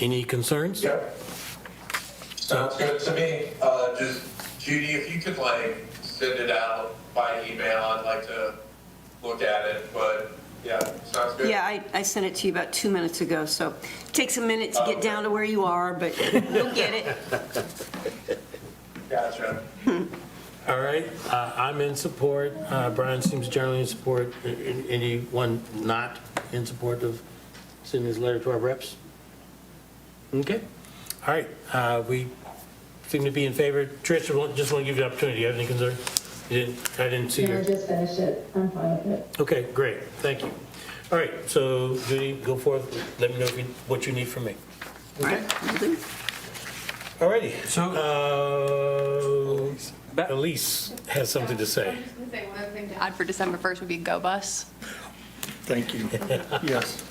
Any concerns? Yep. Sounds good to me. Uh, just Judy, if you could like send it out by email, I'd like to look at it, but yeah, sounds good. Yeah, I, I sent it to you about two minutes ago, so it takes a minute to get down to where you are, but you'll get it. Gotcha. All right, uh, I'm in support. Uh, Brian seems generally in support. A- a- Anyone not in support of sending this letter to our reps? Okay, all right, uh, we seem to be in favor. Trish, I want- just want to give you the opportunity. You have any concern? You didn't, I didn't see No, I your, just finished it. I'm fine with it. okay, great, thank you. All right, so Judy, go forth, let me know if you- what you need from me. All righty. So. Ba- Elise has something to say. I was just gonna say, one other thing to add for December 1st would be Go Bus. Thank you. Yes,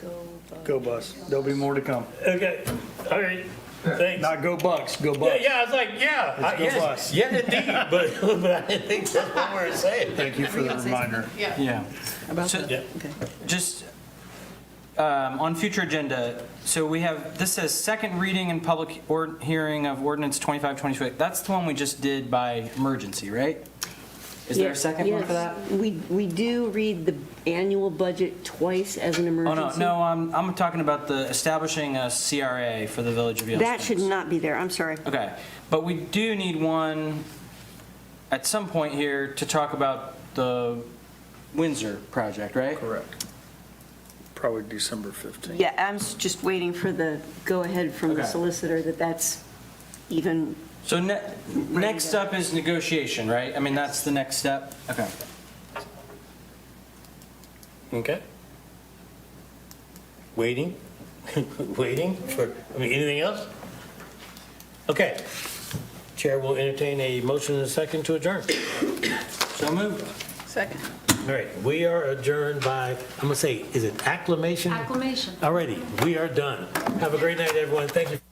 Go Bus. go bus. There'll be more to come. Okay, all right, thanks. Not go Bucks, go Yeah, bus. yeah, I was like, yeah. It's I- go yes, bus. Yeah, indeed, but, but I didn't think that's what we were saying. Thank you for the reminder. Yeah. Yeah. So- Yeah. Just um, on future agenda, so we have, this says second reading and public or- hearing of ordinance 2526. That's the one we just did by emergency, right? Is there a second one for that? We, we do read the annual budget twice as an Oh, no, emergency. no, I'm, I'm talking about the establishing a CRA for the Village of Yellowstone. That should not be there, I'm sorry. Okay, but we do need one at some point here to talk about the Windsor project, right? Correct. Probably December 15th. Yeah, I'm s- just waiting for the go-ahead from the Okay. solicitor that that's even, So ne- next up is negotiation, right? I mean, that's the next step? Okay. Okay. Waiting, waiting for, I mean, anything else? Okay. Chair will entertain a motion and a second to adjourn. So moved. Second. All right, we are adjourned by, I'm gonna say, is it acclamation? Acclamation. All righty, we are done. Have a great night, everyone. Thank you.